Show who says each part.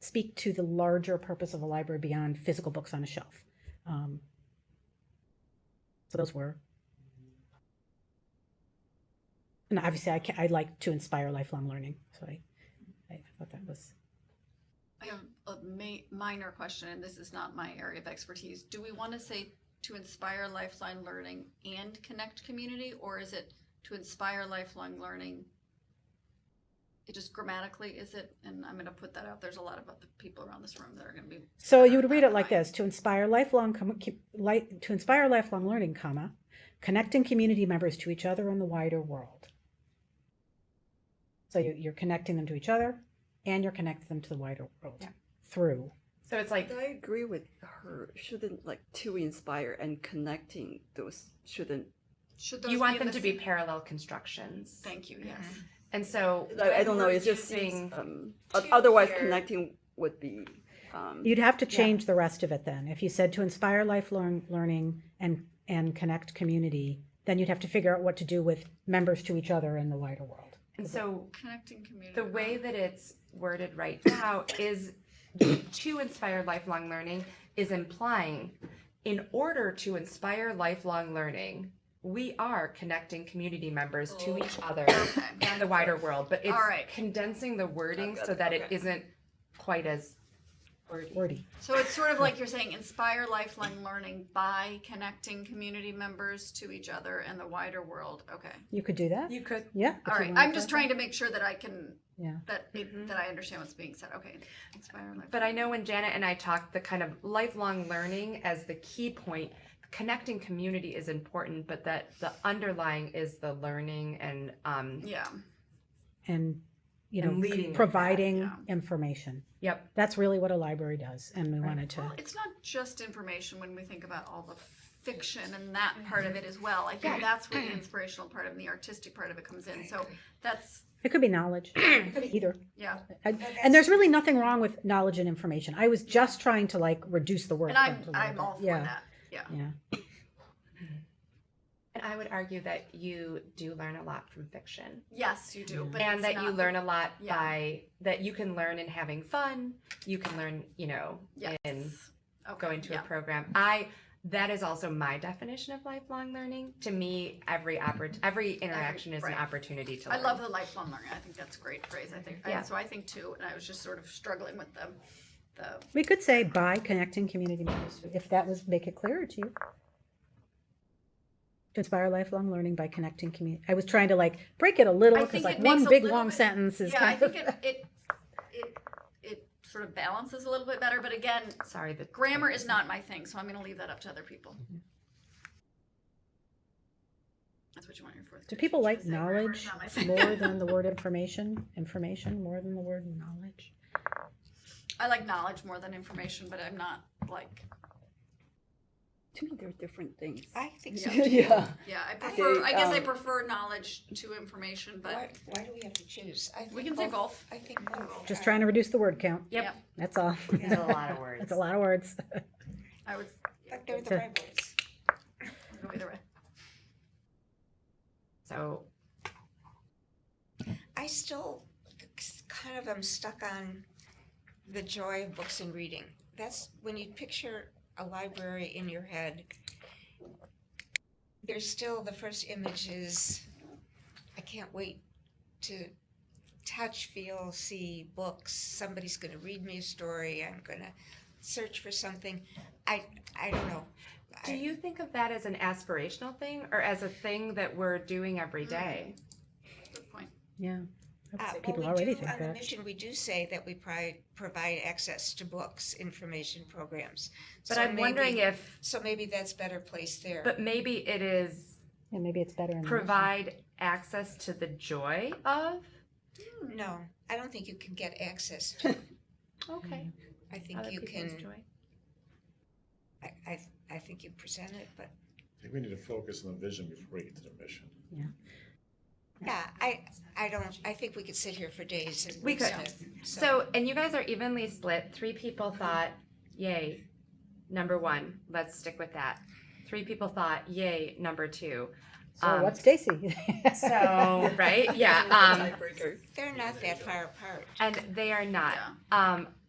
Speaker 1: speak to the larger purpose of a library beyond physical books on a shelf. Um, so those were. And obviously, I, ca- I like to inspire lifelong learning. So I, I thought that was.
Speaker 2: I have a ma- minor question, and this is not my area of expertise. Do we want to say to inspire lifelong learning and connect community, or is it to inspire lifelong learning? It just grammatically is it, and I'm going to put that out. There's a lot of other people around this room that are going to be.
Speaker 1: So
Speaker 2: better
Speaker 1: you would
Speaker 2: at
Speaker 1: read
Speaker 2: that
Speaker 1: it like
Speaker 2: than I am.
Speaker 1: this: to inspire lifelong, com- com- light, to inspire lifelong learning, comma, connecting community members to each other and the wider world. So you, you're connecting them to each other, and you're connecting them to the wider world
Speaker 3: Yeah.
Speaker 1: through.
Speaker 3: So it's like
Speaker 4: I agree with her. Shouldn't like to inspire and connecting those shouldn't.
Speaker 2: Should
Speaker 3: you
Speaker 2: those
Speaker 3: want
Speaker 2: in
Speaker 3: them
Speaker 2: the
Speaker 3: to be
Speaker 2: same-
Speaker 3: parallel constructions.
Speaker 2: Thank you. Yes.
Speaker 3: And so
Speaker 4: I, I don't know.
Speaker 3: we're
Speaker 4: It's just
Speaker 3: choosing-
Speaker 4: um, o-
Speaker 3: two
Speaker 4: otherwise
Speaker 3: here.
Speaker 4: connecting would be. Um,
Speaker 1: You'd have to
Speaker 3: Yeah.
Speaker 1: change the rest of it then. If you said to inspire lifelong learning and and connect community, then you'd have to figure out what to do with members to each other and the wider world.
Speaker 3: and so
Speaker 2: Connecting community.
Speaker 3: the way that it's worded right now is to inspire lifelong learning is implying in order to inspire lifelong learning we are connecting community members to each other
Speaker 2: Oh. Okay.
Speaker 3: and the wider world but it's
Speaker 2: All right.
Speaker 3: condensing the wording
Speaker 4: Got
Speaker 3: so
Speaker 4: it,
Speaker 3: that it
Speaker 4: okay.
Speaker 3: isn't quite as wordy.
Speaker 1: Wordy.
Speaker 2: So it's sort of like you're saying inspire lifelong learning by connecting community members to each other and the wider world. Okay.
Speaker 1: You could do that.
Speaker 3: you could
Speaker 1: yeah. if
Speaker 2: All
Speaker 1: you
Speaker 2: right.
Speaker 1: wanted
Speaker 2: I'm
Speaker 1: to.
Speaker 2: just trying to make sure that I can
Speaker 1: Yeah.
Speaker 2: that it-
Speaker 3: Mhm.
Speaker 2: that I understand what's being said. Okay, inspire life.
Speaker 3: But I know when Janet and I talked, the kind of lifelong learning as the key point, connecting community is important, but that the underlying is the learning and um,
Speaker 2: Yeah,
Speaker 1: and you know
Speaker 3: And leading
Speaker 1: c-
Speaker 3: with that,
Speaker 1: providing
Speaker 2: yeah.
Speaker 1: information
Speaker 3: yep,
Speaker 1: that's really what a library does and we
Speaker 3: Right.
Speaker 1: wanted to
Speaker 2: well, it's not just information when we think about all the fiction and that part
Speaker 3: Mm-hmm.
Speaker 2: of it as well. I think that's where the inspirational part of and the artistic part of it comes in. So that's
Speaker 1: it could be knowledge it could be either
Speaker 2: yeah.
Speaker 1: I, and there's really nothing wrong with knowledge and information i was just trying to like reduce the word
Speaker 2: And I'm
Speaker 1: count a little
Speaker 2: I'm
Speaker 1: bit.
Speaker 2: all for
Speaker 1: yeah
Speaker 2: that. Yeah.
Speaker 1: yeah
Speaker 3: and I would argue that you do learn a lot from fiction,
Speaker 2: Yes, you do. But
Speaker 3: and
Speaker 2: it's
Speaker 3: that you
Speaker 2: not-
Speaker 3: learn a lot
Speaker 2: yeah.
Speaker 3: by that you can learn in having fun. You can learn, you know,
Speaker 2: Yes.
Speaker 3: in
Speaker 2: Okay,
Speaker 3: going to
Speaker 2: yeah.
Speaker 3: a program. I that is also my definition of lifelong learning. To me, every oppor- every interaction is
Speaker 2: right.
Speaker 3: an opportunity to.
Speaker 2: I
Speaker 3: learn.
Speaker 2: love the lifelong learning. I think that's a great phrase. I think
Speaker 3: Yeah.
Speaker 2: and so. I think too, and I was just sort of struggling with the the
Speaker 1: we could say by connecting community members if that was make it clearer to you to inspire lifelong learning by connecting community i was trying to like break it a little
Speaker 2: I
Speaker 1: because
Speaker 2: think
Speaker 1: like
Speaker 2: it
Speaker 1: one
Speaker 2: makes a
Speaker 1: big
Speaker 2: little
Speaker 1: long
Speaker 2: bit-
Speaker 1: sentence is
Speaker 2: yeah. I
Speaker 1: kind
Speaker 2: think
Speaker 1: of
Speaker 2: it it it it sort of balances a little bit better. But again,
Speaker 3: Sorry, the
Speaker 2: Grammar is not my thing, so I'm going to leave that up to other people.
Speaker 1: Mm-hmm.
Speaker 2: That's what you want your fourth.
Speaker 1: do
Speaker 2: grade
Speaker 1: people
Speaker 2: teacher
Speaker 1: like
Speaker 2: to say, "Grammar
Speaker 1: knowledge
Speaker 2: is not my thing."
Speaker 1: more than the word information information more than the word knowledge
Speaker 2: I like knowledge more than information, but I'm not like
Speaker 4: to me, they're different things.
Speaker 5: I think so. too.
Speaker 4: yeah.
Speaker 2: yeah. I prefer. I guess I
Speaker 4: um,
Speaker 2: prefer knowledge to information, but
Speaker 5: Why, why do we have to choose? I think
Speaker 2: we can say both.
Speaker 5: I think both.
Speaker 1: Just
Speaker 5: are-
Speaker 1: trying to reduce the word count.
Speaker 3: Yep.
Speaker 2: Yep.
Speaker 1: That's all.
Speaker 3: It's a lot of words.
Speaker 1: That's a lot of words.
Speaker 2: I would
Speaker 5: But they're
Speaker 1: to-
Speaker 5: the right words.
Speaker 2: go either way.
Speaker 3: So
Speaker 5: I still kind of am stuck on the joy of books and reading. That's when you picture a library in your head. There's still the first image is I can't wait to touch, feel, see books. Somebody's going to read me a story. I'm going to search for something. I I don't know.
Speaker 3: do
Speaker 5: I-
Speaker 3: you think of that as an aspirational thing or as a thing that we're doing
Speaker 5: Mm.
Speaker 3: every day?
Speaker 2: Good point.
Speaker 1: Yeah.
Speaker 5: Uh, well,
Speaker 1: People
Speaker 5: we
Speaker 1: already
Speaker 5: do-
Speaker 1: think
Speaker 5: On the
Speaker 1: that.
Speaker 5: mission, we do say that we pri- provide access to books, information programs.
Speaker 3: But
Speaker 5: So
Speaker 3: I'm wondering
Speaker 5: maybe-
Speaker 3: if
Speaker 5: So maybe that's better placed there.
Speaker 3: but maybe it is
Speaker 1: And maybe it's better in. the-
Speaker 3: provide access to the joy of
Speaker 5: No, I don't think you can get access. to it.
Speaker 3: okay.
Speaker 5: I
Speaker 3: Other
Speaker 5: Mm. think you
Speaker 3: people's
Speaker 5: can,
Speaker 3: joy.
Speaker 5: I, I, I think you present it, but
Speaker 6: I think we need to focus on the vision before we get to the mission.
Speaker 5: yeah, I, I don't, I think we could sit here for days and.
Speaker 3: We could.
Speaker 5: discuss it,
Speaker 3: So and you guys are evenly split. Three people thought, yay, number one, let's stick with that. Three people thought, yay, number two.
Speaker 1: So
Speaker 3: um,
Speaker 1: what's Stacy?
Speaker 3: So right? Yeah. Um
Speaker 5: They're not that far apart.
Speaker 3: and they are not.
Speaker 2: Yeah.
Speaker 3: Um,